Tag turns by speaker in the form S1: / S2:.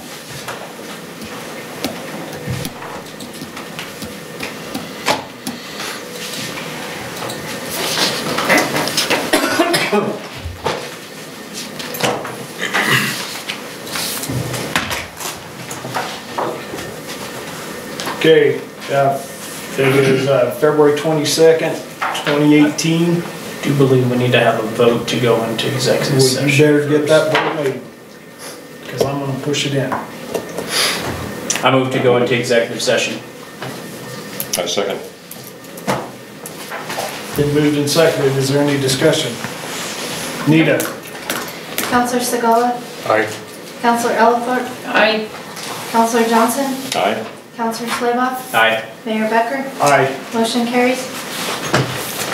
S1: Okay, uh, it is uh, February 22nd, 2018.
S2: I do believe we need to have a vote to go into executive
S1: Well,
S2: session.
S1: You better get that vote made, because I'm gonna push it in.
S2: I move to go into executive session.
S3: I second.
S1: Been moved and seconded, is there any discussion? Nita?
S4: Counselor Segala,
S3: Aye.
S4: Counselor Ellipfort,
S2: Aye.
S4: Counselor Johnson,
S3: Aye.
S4: Counselor Schleba,
S2: Aye.
S4: Mayor Becker,
S1: Aye.
S4: motion carries.